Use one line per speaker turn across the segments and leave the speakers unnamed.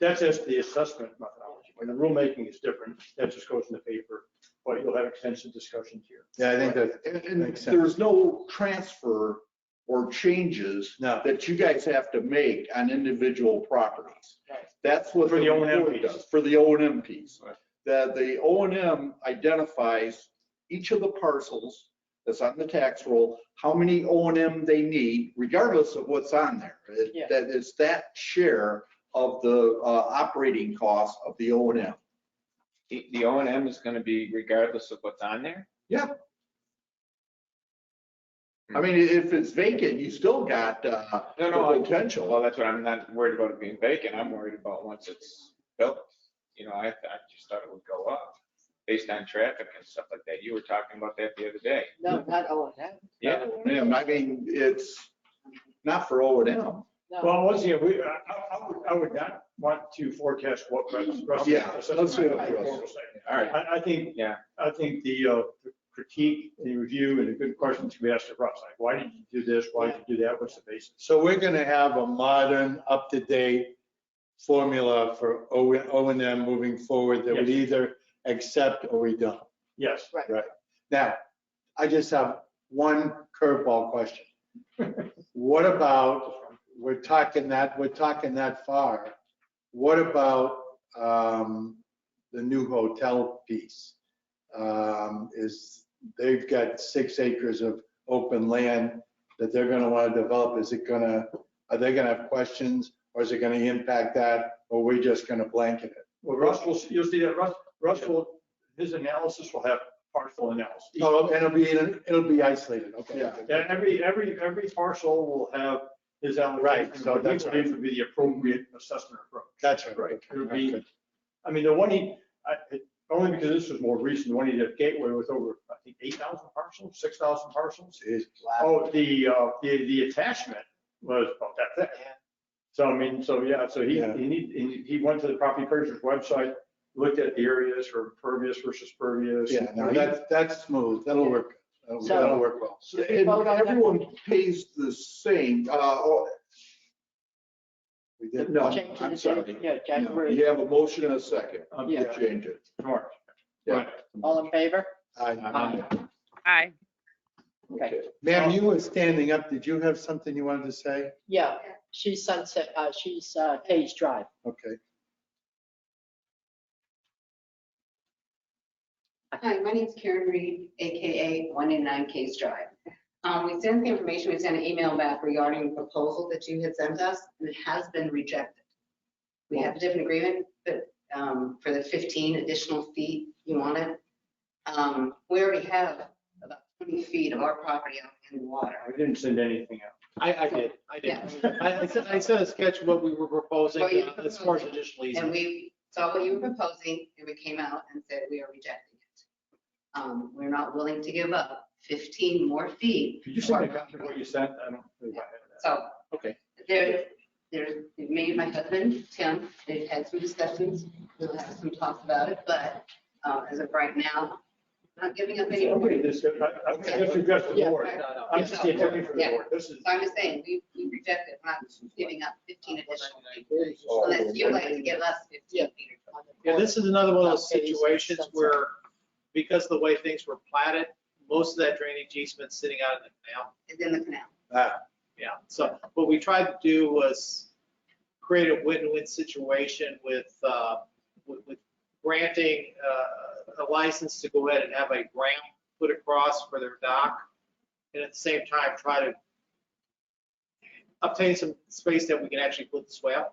that's just the assessment methodology. When the rulemaking is different, that just goes in the paper, but you'll have extensive discussions here.
Yeah, I think that,
And, and
Makes sense.
there's no transfer or changes
no,
that you guys have to make on individual properties.
Right.
That's what.
For the O&M
report
piece.
does, For the O and M piece.
Right.
That the O and M identifies each of the parcels that's on the tax roll, how many O and M they need, regardless of what's on there. It-
Yeah.
That is that share of the, uh, operating cost of the O and M.
The, the O and M is gonna be regardless of what's on there?
I mean, if it's vacant, you still got, uh,
No, no,
the
I-
potential.
well, that's what I'm not worried about it being vacant. I'm worried about once it's built. You know, I, I just thought it would go up based on traffic and stuff like that. You were talking about that the other day.
No, not O and M.
Yeah,
Yeah, I mean, it's not for O and M.
No,
Well, once again, we, I, I I would, I would not want to forecast what Russ.
Yeah, let's do it, Russ.
all right.
I, I think,
Yeah,
I think the uh, the critique and review and the good questions we asked of Russ, like, why did you do this? Why did you do that? What's the basis?
so we're gonna have a modern, up-to-date formula for O, O and M moving forward that we either accept or we don't.
Yes.
Now, I just have one curveball question. What about, we're talking that, we're talking that far. What about um, the new hotel piece? Um, Is, they've got six acres of open land that they're going to want to develop. Is it going to, are they going to have questions? Or is it going to impact that? Or we're just going to blanket it?
Well, Russ will, you'll see that Russ, Russ will, his analysis will have parcel analysis.
Oh, and it'll be, it'll be isolated, okay.
Yeah.
And every, every, every parcel will have his own.
Right, so
What we
that's right.
believe would be the appropriate assessment approach.
That's right.
Right.
It would be, I mean, the one he, I, it- only because this was more recent, the one he did at Gateway with over, I think, eight thousand parcels, six thousand parcels.
Jeez.
Oh, the, uh, the, the attachment was about that thick.
Yeah.
So I mean, so yeah, so he,
Yeah.
he, need- he- he went to the property purchase website, looked at the areas for pervious versus pervious.
Yeah, no, that's, that's smooth, that'll work, That'll-
So-
that'll work well.
So, And everyone pays the same, uh, oh,
We did.
no,
change
I'm
the
sorry.
date, yeah, January,
You have a motion and a second
Um,
to
Yeah.
change it.
Tomorrow.
Yeah.
all in favor?
Aye.
Uh-huh.
Aye.
Okay,
Ma'am, you were standing up, did you have something you wanted to say?
yeah, she's Sunset, uh, she's, uh, Page Drive.
Okay,
Hi, my name's Karen Reed, AKA 189 Case Drive. Um, We sent the information, we sent an email back regarding the proposal that you had sent us, and it has been rejected. We have a different agreement, but um, for the 15 additional feet you wanted. Um, We already have about 20 feet of our property out in the water.
I didn't send anything out.
I, I did, I did.
Yeah.
I, I sent, I sent a sketch of what we were proposing
What you
uh, as far as
proposed.
additional
And
easement.
we saw what you were proposing, and we came out and said, we are rejecting it. Um, We're not willing to give up 15 more feet.
Could you
of
send me
our
a copy of
property.
what you sent? I don't believe I have that.
So.
Okay.
There, there's, me and my husband, Tim, they've had some discussions, we'll have some talks about it, but uh, as of right now, not giving up any.
Nobody just, I, I guess you got the
Yeah.
board. I'm just the attorney for the
Yeah.
board. This is.
So I'm just saying, we, we rejected, not giving up 15 additional feet,
Oh.
unless you'd like to give us 15 feet.
on the
Yeah, this is another one of those
Okay, so
situations
that's-
where, because of the way things were platted, most of that drainage easement's sitting out in the canal.
It's in the canal.
Ah.
Yeah, so what we tried to do was create a win-win situation with, uh, with with granting uh, a license to go ahead and have a ramp put across for their dock, and at the same time, try to obtain some space that we can actually put the swale.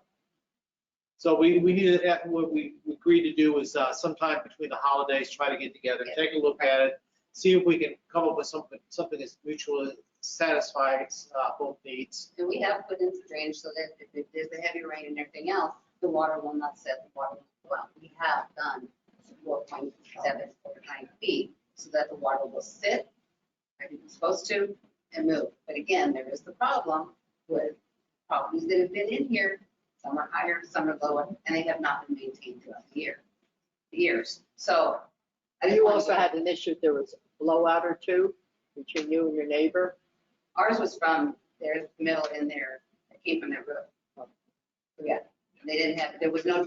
So we, we needed, that- what we we agreed to do was uh, sometime between the holidays, try to get together, take a look at it, see if we can come up with something, something that's mutually satisfies uh, both needs.
And we have put in some drainage so that if it- there's a heavy rain and everything else, the water will not set, the water will go out. We have done 4.7, 4.9 feet so that the water will sit, where it's supposed to, and move. But again, there is the problem with properties that have been in here, some are higher, some are lower, and they have not been maintained throughout the year, years. So. I just
You
wanted
also
to-
had an issue, there was a blowout or two between you and your neighbor.
Ours was from their middle in there, it came from their roof. Yeah, they didn't have, there was no